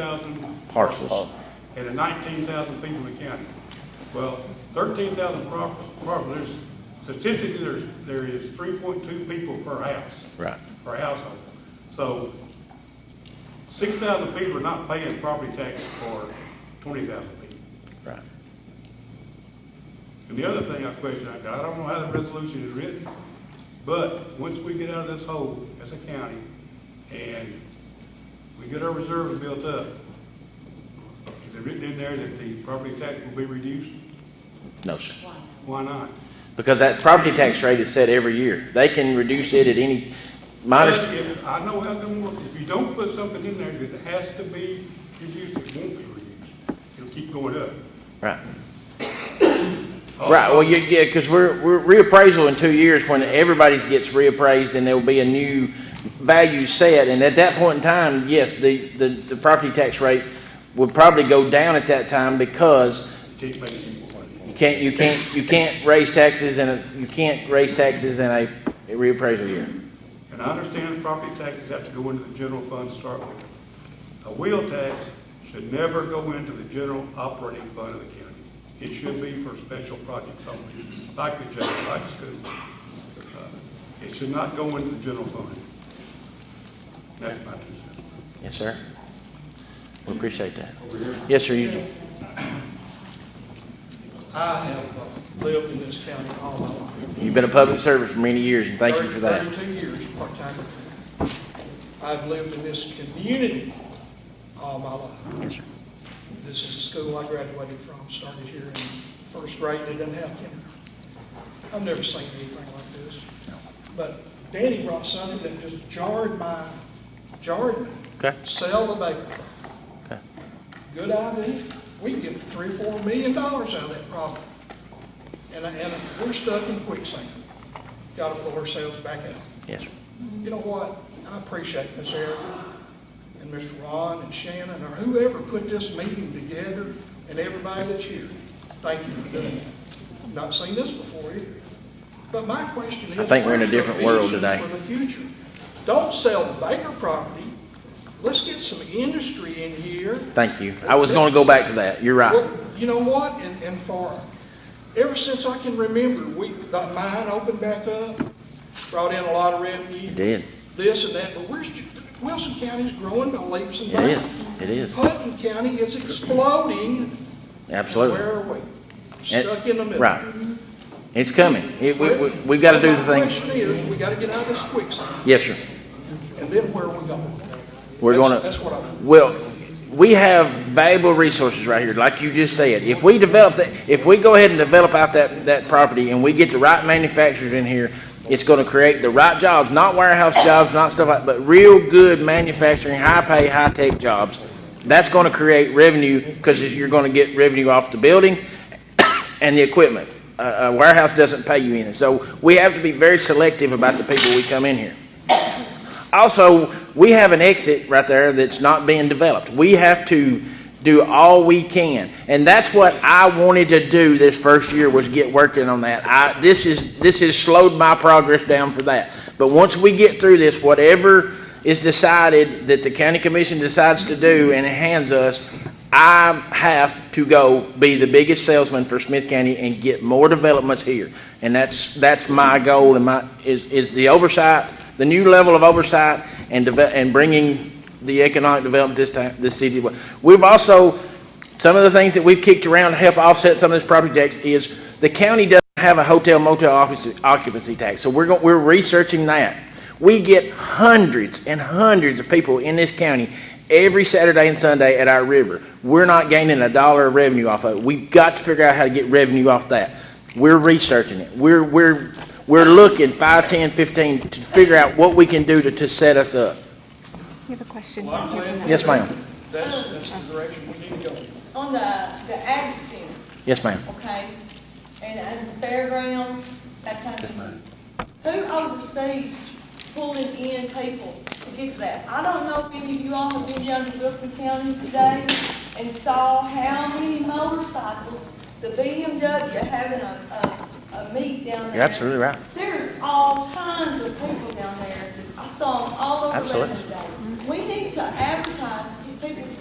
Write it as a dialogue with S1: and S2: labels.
S1: thousand
S2: parcels.
S1: and the nineteen thousand people in the county. Well, thirteen thousand properties, there's, statistically, there's, there is three point two people per house.
S2: Right.
S1: Per household. So, six thousand people are not paying property tax for twenty thousand people.
S2: Right.
S1: And the other thing I question, I got, I don't know how the resolution is written, but once we get out of this hole as a county and we get our reserves built up, is it written in there that the property tax will be reduced?
S2: No, sir.
S1: Why not?
S2: Because that property tax rate is set every year. They can reduce it at any minus,
S1: But if- I know how them work. If you don't put something in there that has to be reduced, it won't be reduced. It'll keep going up.
S2: right. Right, well, you- yeah, because we're, we're reappraisal in two years when everybody's gets reappraised and there'll be a new value set. And at that point in time, yes, the, the, the property tax rate would probably go down at that time because
S1: You Can't make it equal.
S2: You can't, you can't, you can't raise taxes in a, you can't raise taxes in a reappraisal year.
S1: And I understand property taxes have to go into the general fund to start with. A wheel tax should never go into the general operating fund of the county. It should be for special projects only, like the jail, like school. Uh, It should not go into the general fund. That's my two cents.
S2: Yes, sir. We appreciate that. Yes, sir, you,
S3: I have uh, lived in this county all my life.
S2: you've been a public servant for many years, and thank you for that.
S3: Thirty-two years, part-time. I've lived in this community all my life.
S2: Yes, sir.
S3: This is the school I graduated from, started here in first grade, they didn't have kindergarten. I've never seen anything like this. But Danny brought something that just jarred my, jarred me.
S2: Okay.
S3: Sell the Baker property.
S2: Okay.
S3: good idea. We can get three, four million dollars out of that problem. And, and we're stuck in quicksand. Got to pull ourselves back out.
S2: Yes, sir.
S3: You know what? I appreciate Ms. Erica and Mr. Ron and Shannon or whoever put this meeting together and everybody that's here. Thank you for doing it. Not seen this before either. But my question is.
S2: I think we're in a
S3: where's your
S2: different world
S3: vision
S2: today.
S3: For the future. Don't sell the Baker property. Let's get some industry in here.
S2: Thank you. I was gonna go back to that. You're right.
S3: Well, you know what, and, and for, ever since I can remember, we, the mine opened back up, brought in a lot of revenue.
S2: It did.
S3: This and that, but where's, Wilson County's growing by leaps and
S2: It
S3: bounds.
S2: is. It is.
S3: Hutton County is exploding.
S2: Absolutely.
S3: Where are we? Stuck in the middle.
S2: Right. It's coming. It, we, we, we've gotta do the
S3: My
S2: things.
S3: question is, we gotta get out of this quicksand,
S2: Yes, sir.
S3: and then where are we going?
S2: We're
S3: That's-
S2: gonna.
S3: That's what I'm,
S2: Well, we have valuable resources right here, like you just said. If we develop that, if we go ahead and develop out that, that property and we get the right manufacturers in here, it's gonna create the right jobs, not warehouse jobs, not stuff like, but real good manufacturing, high pay, high tech jobs. That's gonna create revenue, cause you're gonna get revenue off the building and the equipment. A, a warehouse doesn't pay you anything. So we have to be very selective about the people we come in here. Also, we have an exit right there that's not being developed. We have to do all we can. And that's what I wanted to do this first year was get working on that. I, this is, this has slowed my progress down for that. But once we get through this, whatever is decided that the county commission decides to do and hands us, I have to go be the biggest salesman for Smith County and get more developments here. And that's, that's my goal and my, is, is the oversight, the new level of oversight and deve- and bringing the economic development this time, this city. We've also, some of the things that we've kicked around to help offset some of this property tax is the county doesn't have a hotel motel office- occupancy tax, so we're going, we're researching that. We get hundreds and hundreds of people in this county every Saturday and Sunday at our river. We're not gaining a dollar of revenue off of it. We've got to figure out how to get revenue off that. We're researching it. We're, we're, we're looking five, ten, fifteen to figure out what we can do to, to set us up.
S4: You have a question?
S3: well, I'm glad
S2: Yes, ma'am.
S3: that's, that's the direction we need to go.
S5: On the, the ag center,
S2: Yes, ma'am.
S5: okay, and, and fairgrounds, that kind of thing. Who oversees pulling in people to get that? I don't know if any of you all have been down to Wilson County today and saw how many motorcycles, the BMW having a, a, a meet down there.
S2: You're absolutely right.
S5: There's all kinds of people down there. I saw them all over
S2: Absolutely.
S5: Lebanon today. We need to advertise, to get people to